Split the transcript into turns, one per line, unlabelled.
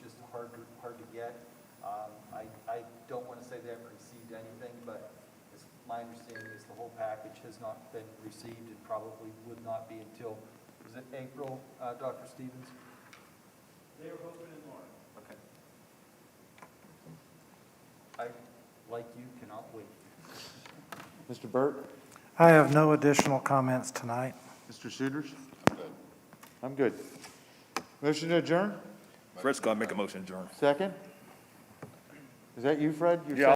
Um, I, I don't want to say they haven't received anything, but it's, my understanding is the whole package has not been received and probably would not be until, was it April, uh, Dr. Stevens?
They are hoping in March.
Okay. I, like you, cannot wait.
Mr. Burt?
I have no additional comments tonight.
Mr. Suders? I'm good. Motion to adjourn?
Fred Scott, make a motion, adjourn.
Second? Is that you, Fred? Your
Yeah,